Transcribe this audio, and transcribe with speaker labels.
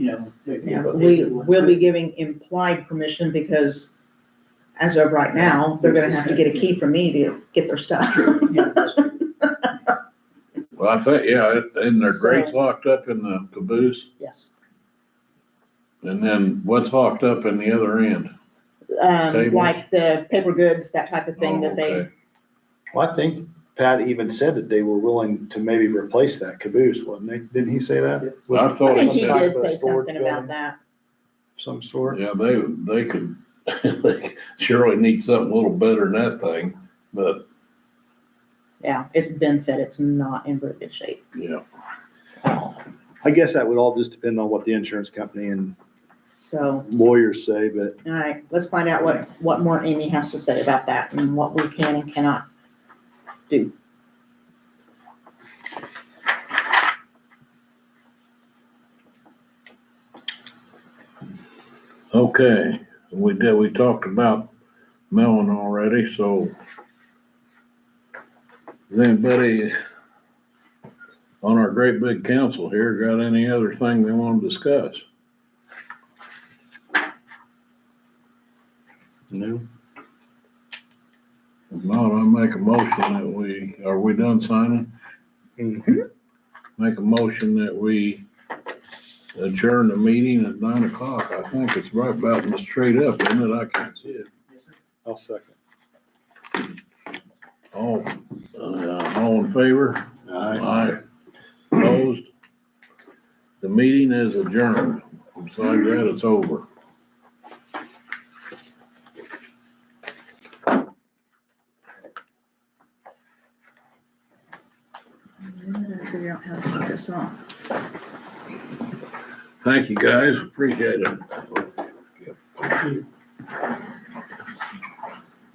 Speaker 1: Yeah,
Speaker 2: but they
Speaker 1: we
Speaker 2: didn't.
Speaker 1: will be giving implied permission because as of right now, they're gonna have to get a key from me to get their stuff.
Speaker 2: True, yeah, that's true.
Speaker 3: Well, I think, yeah, it- and their
Speaker 1: So-
Speaker 3: grates locked up in the caboose,
Speaker 1: Yes.
Speaker 3: and then what's locked up in the other end?
Speaker 1: Um,
Speaker 3: Tables.
Speaker 1: like the paper goods, that type of thing that
Speaker 3: Oh,
Speaker 1: they,
Speaker 3: okay.
Speaker 4: Well, I think Pat even said that they were willing to maybe replace that caboose, wasn't they? Didn't he say that?
Speaker 3: I
Speaker 1: I
Speaker 3: thought
Speaker 1: think he
Speaker 3: it said,
Speaker 1: did say something about that.
Speaker 4: Some sort.
Speaker 3: Oh, yeah, they, they could, they surely need something a little better than that thing, but,
Speaker 1: Yeah, it's been said it's not in very good shape.
Speaker 3: yeah.
Speaker 4: I guess that would all just depend on what the insurance company and
Speaker 1: So,
Speaker 4: lawyers say, but
Speaker 1: all right, let's find out what, what more Amy has to say about that and what we can and cannot do.
Speaker 3: Okay, we did, we talked about melon already, so. Has anybody on our great big council here got any other thing they want to discuss?
Speaker 4: no.
Speaker 3: If not, I make a motion that we, are we done signing?
Speaker 4: Mhm.
Speaker 3: Make a motion that we adjourn the meeting at nine o'clock. I think it's right about straight up, isn't it? I can't see it.
Speaker 4: I'll second.
Speaker 3: All, uh, all in favor?
Speaker 4: Aye.
Speaker 3: Aye. Opposed? The meeting is adjourned. Besides that, it's over.
Speaker 1: Figure out how to put this off.
Speaker 3: Thank you, guys. Appreciate it.